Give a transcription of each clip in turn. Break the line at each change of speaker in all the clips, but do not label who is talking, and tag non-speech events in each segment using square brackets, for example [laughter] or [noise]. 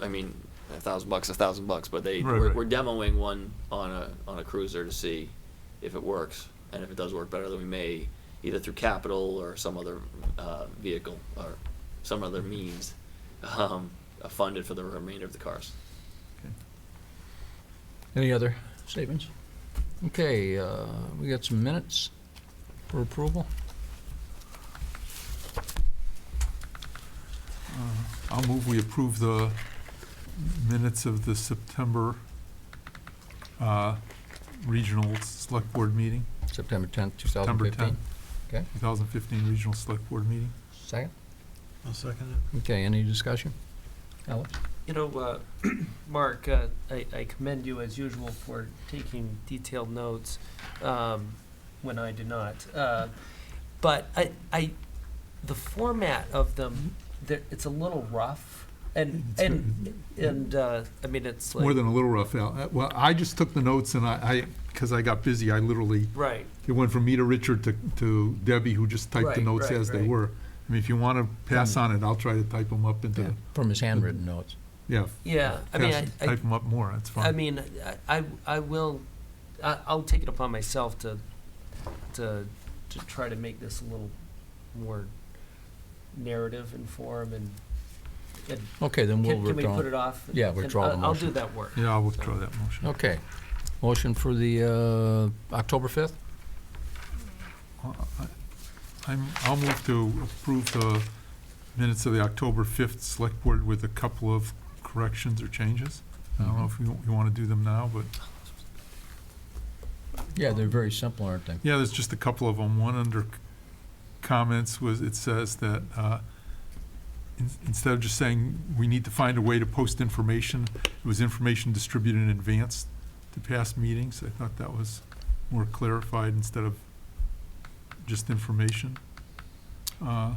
I mean, a thousand bucks, a thousand bucks, but they,
Right,
we're,
right.
we're demoing one on a, on a cruiser to see if it works. And if it does work better, then we may, either through capital or some other, uh, vehicle or some other means, um, uh, fund it for the remainder of the cars.
Any other statements? Okay, uh, we got some minutes for approval.
I'll move we approve the minutes of the September uh, Regional Select Board meeting,
September 10th,
September
2015.
10,
Okay.
2015 Regional Select Board meeting.
Second?
I'll second it.
Okay, any discussion? Alex?
You know, uh, [clears throat] Mark, uh, I I commend you as usual for taking detailed notes um, when I do not. Uh, But I, I, the format of them, they're- it's a little rough, and,
It's
and, and, uh, I mean, it's like.
More than a little rough, Al. Uh, Well, I just took the notes and I, because I got busy, I literally,
Right,
it went from me to Richard to to Debbie, who just typed the
Right,
notes
right,
as they
right.
were. I mean, if you want to pass on it, I'll try to type them up into,
From his handwritten notes.
yeah,
yeah, I mean, I-
pass-
I,
type them up more, that's fine.
I mean, I, I- I will, I, I'll take it upon myself to, to, to try to make this a little more narrative and form and, and
Okay, then we'll
can, can we
withdraw.
put it off?
Yeah,
And
withdraw the
I'll- I'll
motion.
do that work.
Yeah, I'll withdraw that motion.
Okay. Motion for the uh, October 5th?
I- I'm, I'll move to approve the minutes of the October 5th Select Board with a couple of corrections or changes. I don't know if you, you want to do them now, but,
Yeah, they're very simple, aren't they?
yeah, there's just a couple of them. One under c- comments was, it says that, uh, in- instead of just saying, we need to find a way to post information, it was information distributed in advance to past meetings. I thought that was more clarified instead of just information. Uh,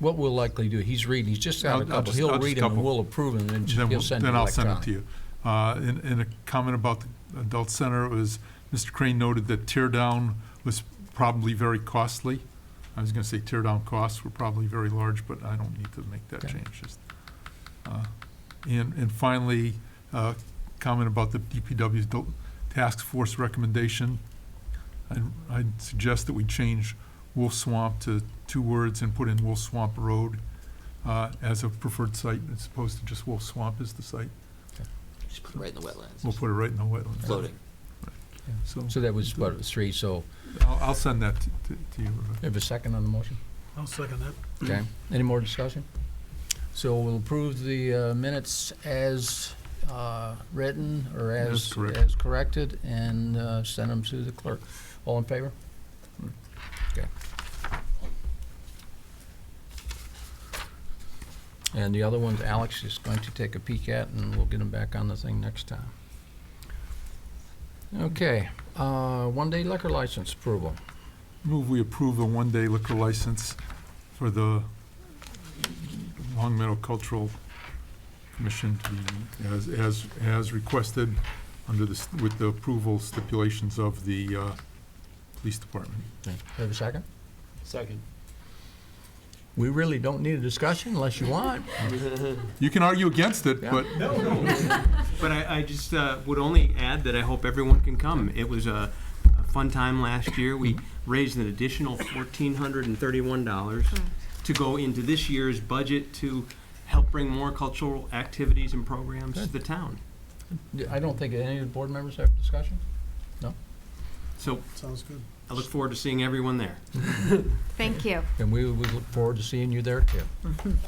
What we'll likely do, he's reading, he's just got
I'll-
a
I'll
couple.
just-
He'll
I'll just
read them and
couple.
we'll approve them and
Then
then he'll
we'll-
send it
Then I'll send it
electronically.
to you. Uh, In, in a comment about the adult center, it was, Mr. Crane noted that tear down was probably very costly. I was gonna say tear down costs were probably very large, but I don't need to make that
Okay.
change. just, uh, And, and finally, uh, comment about the DPW's adult task force recommendation. I'd, I'd suggest that we change Wolf Swamp to two words and put in Wolf Swamp Road uh, as a preferred site, as opposed to just Wolf Swamp as the site.
Just put it right in the wetlands,
We'll
It's
put it right in the wetlands.
floating.
So
So that was, what, it was three, so
I'll, I'll send that to- to to you, Rebecca.
have a second on the motion?
I'll second that.
Okay, Mm-hmm. any more discussion? So we'll approve the uh, minutes as uh, written or
As
as,
correct.
as corrected and uh, send them to the clerk. All in favor? Okay. And the other ones Alex is going to take a peek at and we'll get them back on the thing next time. Okay, uh, one-day liquor license approval.
Move we approve a one-day liquor license for the Long Meadow Cultural Commission to be, as, as, as requested under the, s- with the approval stipulations of the, uh, police department.
Have a second?
Second.
We really don't need a discussion unless you want.
You can argue against it,
Yeah.
but
But I, I just uh, would only add that I hope everyone can come. It was a, a fun time last year. We raised an additional fourteen hundred and thirty-one dollars to go into this year's budget to help bring more cultural activities and programs to the town.
Yeah, I don't think any of the board members have discussion?
So
Sounds good.
I look forward to seeing everyone there.
Thank you.
And we would look forward to seeing you there too.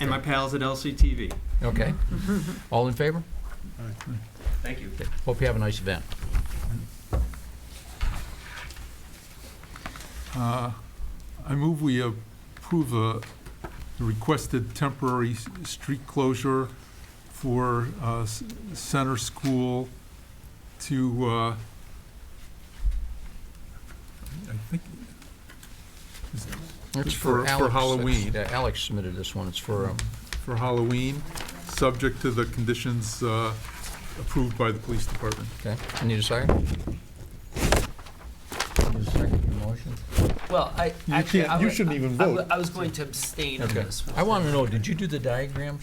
And my pals at LCTV.
Okay? All in favor?
Thank you.
Hope you have a nice event.
Uh, I move we approve uh, the requested temporary s- street closure for uh, s- Center School to, uh, I think, is-
It's
For- for
Alex.
Halloween.
Yeah, Alex submitted this one. It's for, um,
for Halloween, subject to the conditions uh, approved by the police department.
okay, I need a second. Need a second for the motion?
Well, I,
You
actually,
can't-
I
you
would-
shouldn't even
I would-
vote.
I was going to abstain on
Okay.
this.
I want to know, did you do the diagrams?